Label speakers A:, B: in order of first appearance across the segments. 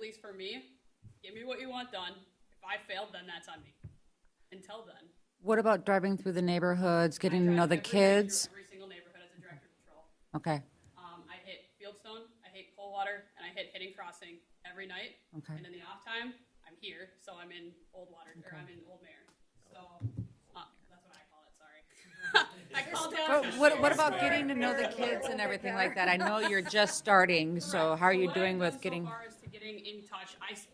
A: least for me, give me what you want done. If I failed, then that's on me. Until then,
B: What about driving through the neighborhoods, getting to
A: I
B: know the
A: drive every day
B: kids?
A: through Every single neighborhood as a director of patrol.
B: Okay,
A: Um, I hit Fieldstone, I hit Coldwater, and I hit Hitting Crossing every night.
B: Okay.
A: And in the off time, I'm here, so I'm in Old Water, or I'm in Old Mare. So uh, that's what I call it. Sorry, I call down.
B: but what, what about getting to know the kids and everything like that? I know you're just starting, so how are you
A: what I've
B: doing
A: done
B: with getting,
A: So far as to getting in touch, I s-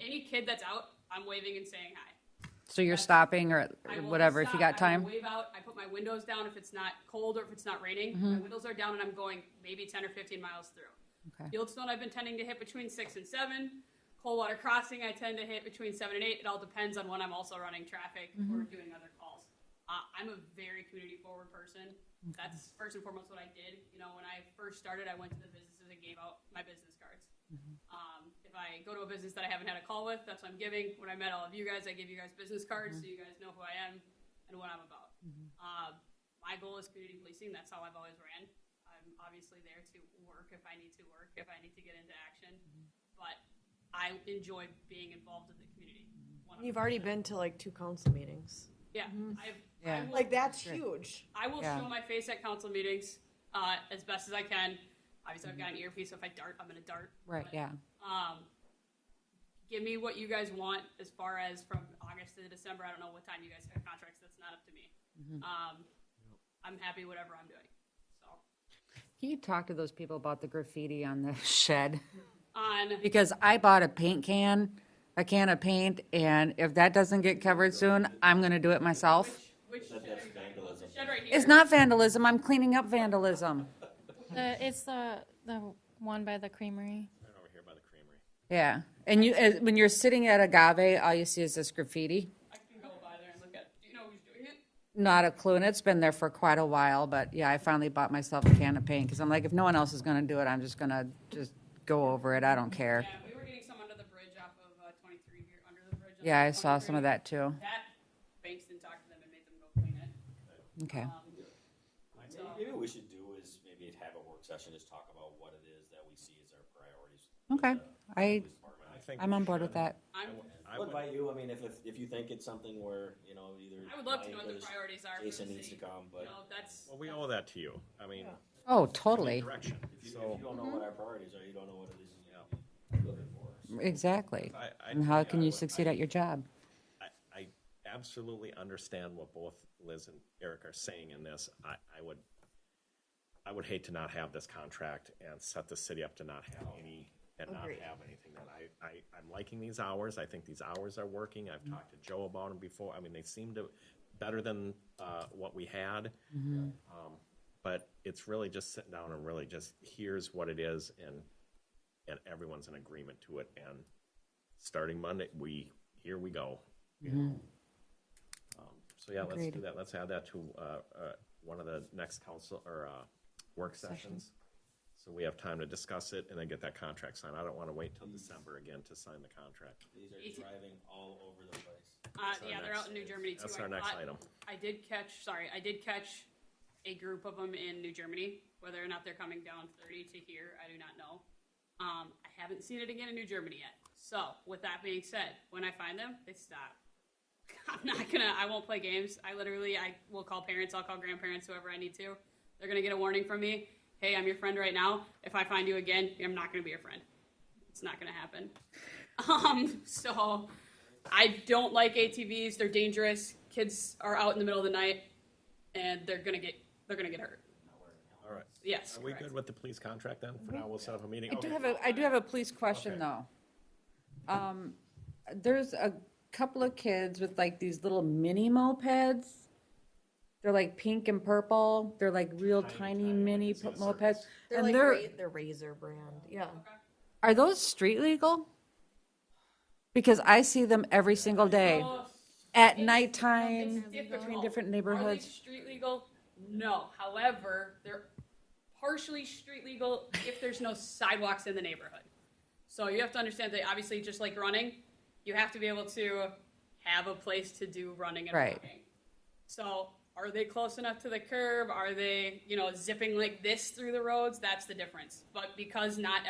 A: any kid that's out, I'm waving and saying hi.
B: so you're stopping or
A: I will
B: whatever, if you
A: stop,
B: got
A: I will
B: time?
A: wave out. I put my windows down if it's not cold or if it's not raining.
B: Mm-hmm.
A: My windows are down and I'm going maybe 10 or 15 miles through.
B: Okay.
A: Fieldstone, I've been tending to hit between 6 and 7. Coldwater Crossing, I tend to hit between 7 and 8. It all depends on when I'm also running traffic or doing other calls. Uh, I'm a very community forward person. That's first and foremost what I did. You know, when I first started, I went to the businesses and gave out my business cards. Um, if I go to a business that I haven't had a call with, that's what I'm giving. When I met all of you guys, I give you guys business cards so you guys know who I am and what I'm about. Um, my goal is community policing. That's how I've always ran. I'm obviously there to work if I need to work, if I need to get into action. But I enjoy being involved in the community.
C: You've already been to like two council meetings.
A: Yeah, I've, I
B: Yeah.
A: will
C: Like, that's huge.
A: I will
B: Yeah.
A: show my face at council meetings uh, as best as I can. Obviously, I've got an earpiece, so if I dart, I'm going to dart.
B: Right,
A: But,
B: yeah,
A: Um, give me what you guys want as far as from August to December. I don't know what time you guys have contracts. That's not up to me.
B: Mm-hmm.
A: Um, I'm happy whatever I'm doing. So
B: Can you talk to those people about the graffiti on the shed?
A: on
B: Because I bought a paint can, a can of paint, and if that doesn't get covered soon, I'm gonna do it myself.
A: which shed, are you talking about? The shed right here.
B: It's not vandalism, I'm cleaning up vandalism.
D: The, it's the, the one by the creamery.
E: Right over here by the creamery.
B: Yeah, and you, as- when you're sitting at Agave, all you see is this graffiti.
A: I can go by there and look at. Do you know who's doing it?
B: Not a clue, and it's been there for quite a while, but yeah, I finally bought myself a can of paint, because I'm like, if no one else is gonna do it, I'm just gonna just go over it, I don't care.
A: Yeah, we were getting some under the bridge off of uh, 23 here, under the bridge. on
B: Yeah, I saw
A: 23.
B: some of that too.
A: That Bankston talked to them and made them go clean it.
B: Okay,
A: Um, So-
E: Maybe what we should do is maybe have a work session, just talk about what it is that we see as our priorities. with
B: okay,
E: the
B: I,
E: police department.
B: I'm on board with that.
A: I'm,
E: I would invite you, I mean, if, if, if you think it's something where, you know, either.
A: I would love to know
E: Mike
A: what the
E: or
A: priorities are. for
E: Jason
A: the
E: needs to
A: city.
E: come, but
A: You know, that's.
F: Well, we owe that to you. I mean,
B: Oh, totally,
F: direction.
E: if you, if
F: So
E: you don't know what our priorities are, you don't know what it is you're looking for. So
B: exactly.
F: I, I.
B: And how
F: I
B: can you
F: would-
B: succeed at your job?
F: I, I absolutely understand what both Liz and Eric are saying in this. I, I would, I would hate to not have this contract and set the city up to not have any, and not
C: Agreed.
F: have anything. That I, I, I'm liking these hours. I think these hours are working. I've talked to Joe about them before. I mean, they seem to, better than, uh, what we had. Um, But it's really just sitting down and really just, here's what it is and, and everyone's in agreement to it and starting Monday, we, here we go. you know. Um, So yeah, let's do
B: Mm. Agreed.
F: that. Let's add that to uh, uh, one of the next council or uh, work sessions. So we have time to discuss it and then get that contract signed. I don't want to wait till December again to sign the contract.
E: These
A: Easy.
E: are driving all over the place.
A: Uh,
F: our
A: yeah, they're out in New Germany too.
F: That's
A: I
F: our next
A: caught-
F: item.
A: I did catch, sorry, I did catch a group of them in New Germany. Whether or not they're coming down 30 to here, I do not know. Um, I haven't seen it again in New Germany yet. So, with that being said, when I find them, they stop. I'm not gonna. I won't play games. I literally, I will call parents. I'll call grandparents, whoever I need to. They're gonna get a warning from me. Hey, I'm your friend right now. If I find you again, I'm not gonna be your friend. It's not gonna happen. Um, so I don't like ATVs. They're dangerous. Kids are out in the middle of the night, and they're gonna get they're gonna get hurt.
F: All right.
A: Yes.
F: Are we
A: correct.
F: good with the police contract then? For now, we'll set up a meeting.
B: I do
F: Okay.
B: have a, I do have a police question, though. Um, There's a couple of kids with like these little mini mopeds. They're like pink and purple. They're like real tiny mini po- mopeds.
C: They're
B: And
C: like,
B: they're,
C: ra- they're Razor brand, yeah.
B: are those street legal? Because I see them every single day,
A: So,
B: at
A: it's-
B: nighttime,
A: it's
B: between
A: difficult.
B: different
A: Are they
B: neighborhoods.
A: street legal? No. However, they're partially street legal if there's no sidewalks in the neighborhood. So you have to understand that obviously, just like running, you have to be able to have a place to do running and
B: Right.
A: walking. So are they close enough to the curb? Are they, you know, zipping like this through the roads? That's the difference. But because not